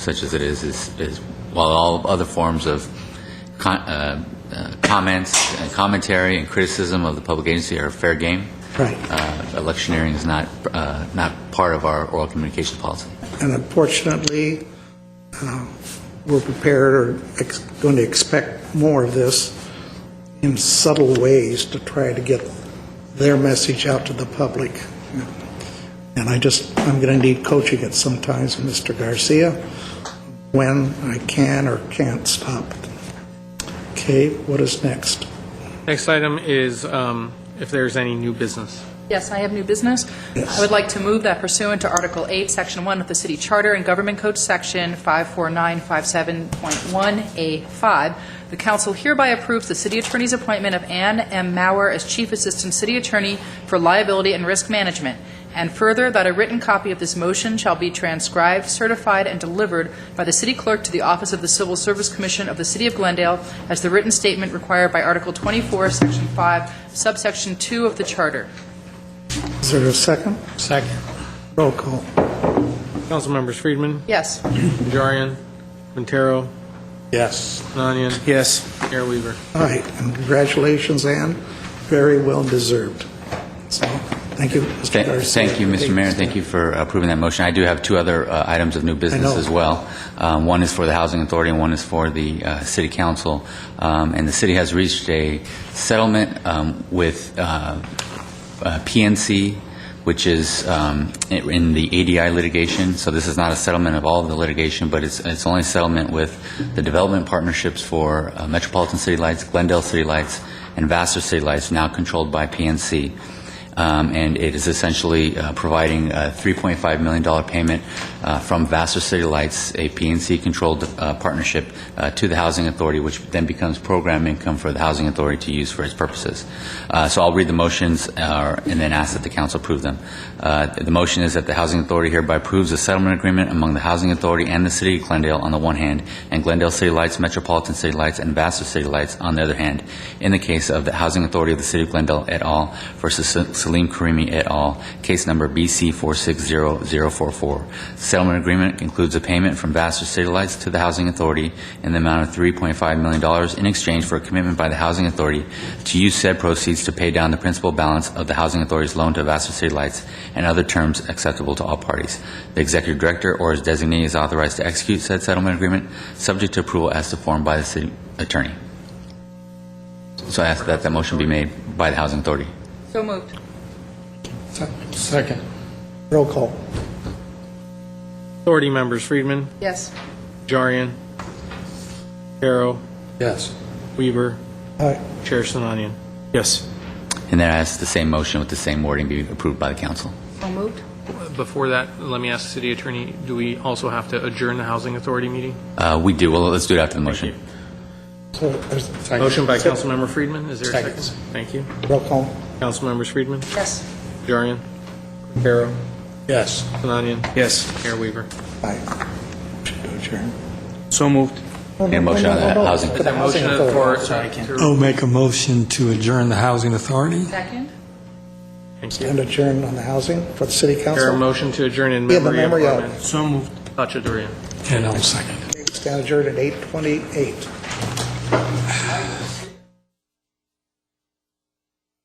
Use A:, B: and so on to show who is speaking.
A: such as it is, is, is while all other forms of con, uh, uh, comments and commentary and criticism of the public agency are fair game.
B: Right.
A: Uh, electioneering is not uh, not part of our oral communications policy.
B: And unfortunately, uh, we're prepared or ex- going to expect more of this in subtle ways to try to get their message out to the public. And I just, I'm going to need coaching at some times, Mr. Garcia, when I can or can't stop. Okay, what is next?
C: Next item is um, if there's any new business.
D: Yes, I have new business. I would like to move that pursuant to Article 8, Section 1 of the City Charter and Government Code Section 54957.1A5, the council hereby approves the city attorney's appointment of Ann M. Mauer as Chief Assistant City Attorney for Liability and Risk Management, and further, that a written copy of this motion shall be transcribed, certified, and delivered by the city clerk to the Office of the Civil Service Commission of the City of Glendale as the written statement required by Article 24, Section 5, subsection 2 of the Charter.
B: Is there a second?
C: Second.
B: Roll call.
C: Councilmembers Friedman,
D: Yes.
C: Najarian, Quintero,
B: Yes.
C: Nanyan,
E: Yes.
C: Mayor Weaver.
B: All right, and congratulations, Ann. Very well deserved. So, thank you, Mr.
A: Thank
B: Garcia.
A: thank you, Mr. Mayor, and thank you for approving that motion. I do have two other uh, items of new business
B: know.
A: as well. Um, One is for the Housing Authority, and one is for the uh, City Council. Um, And the city has reached a settlement um, with uh, uh, PNC, which is um, in in the ADI litigation. So this is not a settlement of all of the litigation, but it's it's only a settlement with the development partnerships for uh, Metropolitan City Lights, Glendale City Lights, and Vassar City Lights, now controlled by PNC. Um, and it is essentially uh, providing a $3.5 million payment uh, from Vassar City Lights, a PNC-controlled uh, partnership, uh, to the Housing Authority, which then becomes program income for the Housing Authority to use for its purposes. Uh, So I'll read the motions uh, and then ask that the council approve them. Uh, The motion is that the Housing Authority hereby approves a settlement agreement among the Housing Authority and the City of Glendale on the one hand, and Glendale City Lights, Metropolitan City Lights, and Vassar City Lights on the other hand, in the case of the Housing Authority of the City of Glendale et al. versus Salim Karimi et al., case number BC 460044. Settlement agreement includes a payment from Vassar City Lights to the Housing Authority in the amount of $3.5 million in exchange for a commitment by the Housing Authority to use said proceeds to pay down the principal balance of the Housing Authority's loan to Vassar City Lights and other terms acceptable to all parties. The Executive Director or his designee is authorized to execute said settlement agreement, subject to approval as to form by the City Attorney. So I ask that that motion be made by the Housing Authority.
D: So moved.
C: Second.
B: Roll call.
C: Authority members Friedman,
D: Yes.
C: Najarian, Quintero,
E: Yes.
C: Weaver,
B: All right,
C: Chair Sinanian.
E: Yes.
A: And then I ask the same motion with the same wording be approved by the council.
D: So moved.
C: Before that, let me ask City Attorney, do we also have to adjourn the Housing Authority meeting?
A: Uh, We do, well, let's do it after the motion.
B: so there's
C: Motion by Councilmember Friedman, is there a
E: Second.
C: second? Thank you.
B: roll call.
C: Councilmembers Friedman,
D: Yes.
C: Najarian, Quintero,
E: Yes.
C: Sinanian,
E: Yes.
C: Mayor Weaver.
B: All right. Should go adjourn.
E: So moved.
A: Yeah, motion on the housing.
B: To the housing
C: Motion
B: authority.
C: for-
F: I'll Oh, make a motion to adjourn the Housing Authority.
D: Second?
C: Thank you.
B: And adjourn on the housing for the city
C: Is there a
B: council.
C: motion to adjourn in
B: Yeah, the
C: memory of
B: memory of-
C: Armin
E: So moved.
C: Khachaturian?
F: And I'll second.
B: Stand adjourned at 8:28.